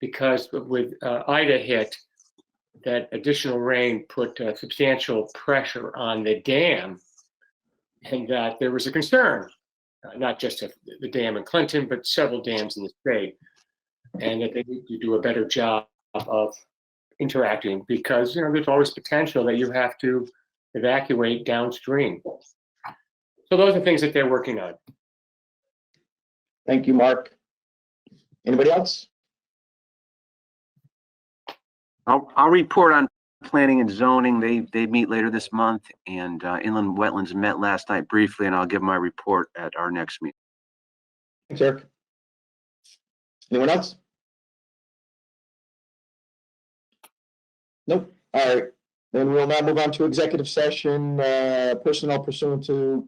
because with uh, Ida hit, that additional rain put uh, substantial pressure on the dam, and that there was a concern, uh, not just of the dam in Clinton, but several dams in the state, and that they need to do a better job of interacting because you know there's always potential that you have to evacuate downstream. So those are things that they're working on. Thank you, Mark. Anybody else? I'll, I'll report on planning and zoning. They, they meet later this month and uh, inland wetlands met last night briefly and I'll give my report at our next meeting. Thanks, Eric. Anyone else? Nope. All right. Then we'll now move on to executive session, uh, personnel pursuant to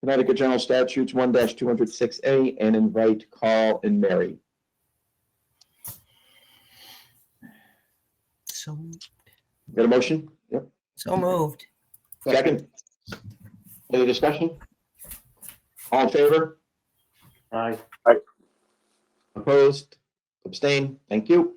Connecticut General Statutes one two hundred six A and invite Carl and Mary. So, Got a motion? Yep. so moved. Second? Any discussion? All in favor? Aye. Opposed? Abstain? Thank you.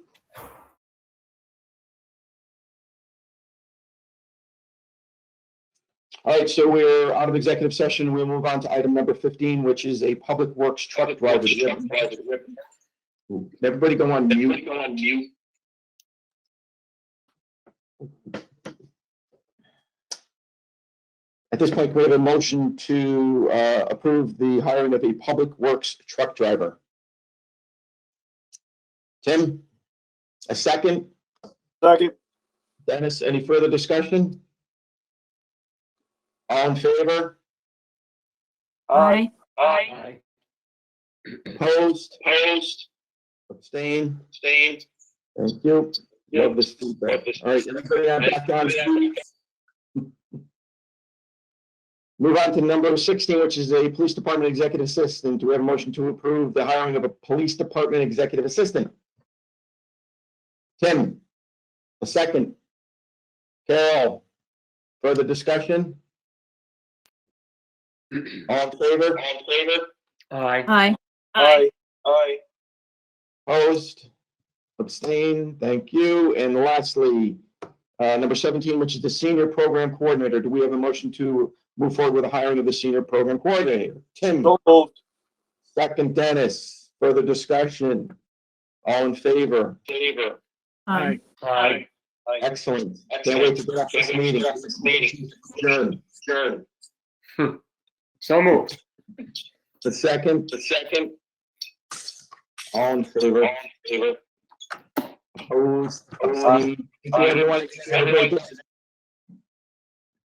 All right, so we're out of executive session. We'll move on to item number fifteen, which is a public works truck driver. Everybody go on mute. At this point, we have a motion to uh, approve the hiring of a public works truck driver. Tim, a second? Second. Dennis, any further discussion? All in favor? Aye. Aye. Opposed? Opposed. Abstained? Abstained. Thank you. Love this feedback. Love this All right, everybody on back on. Move on to number sixteen, which is a police department executive assistant. Do we have a motion to approve the hiring of a police department executive assistant? Tim, a second. Carol, further discussion? All in favor? All in favor? Aye. Aye. Aye. Aye. Opposed? Abstain. Thank you. And lastly, uh, number seventeen, which is the senior program coordinator. Do we have a motion to move forward with the hiring of the senior program coordinator? Tim, So moved. second Dennis, further discussion. All in favor? Favor. Aye. Aye. Aye. Excellent. Can't wait to get off this meeting. Meeting. Adjourned. Adjourned. So moved. The second, The second. all in favor? Favor. Opposed? Abstained. Thank you, everyone. Have a great day.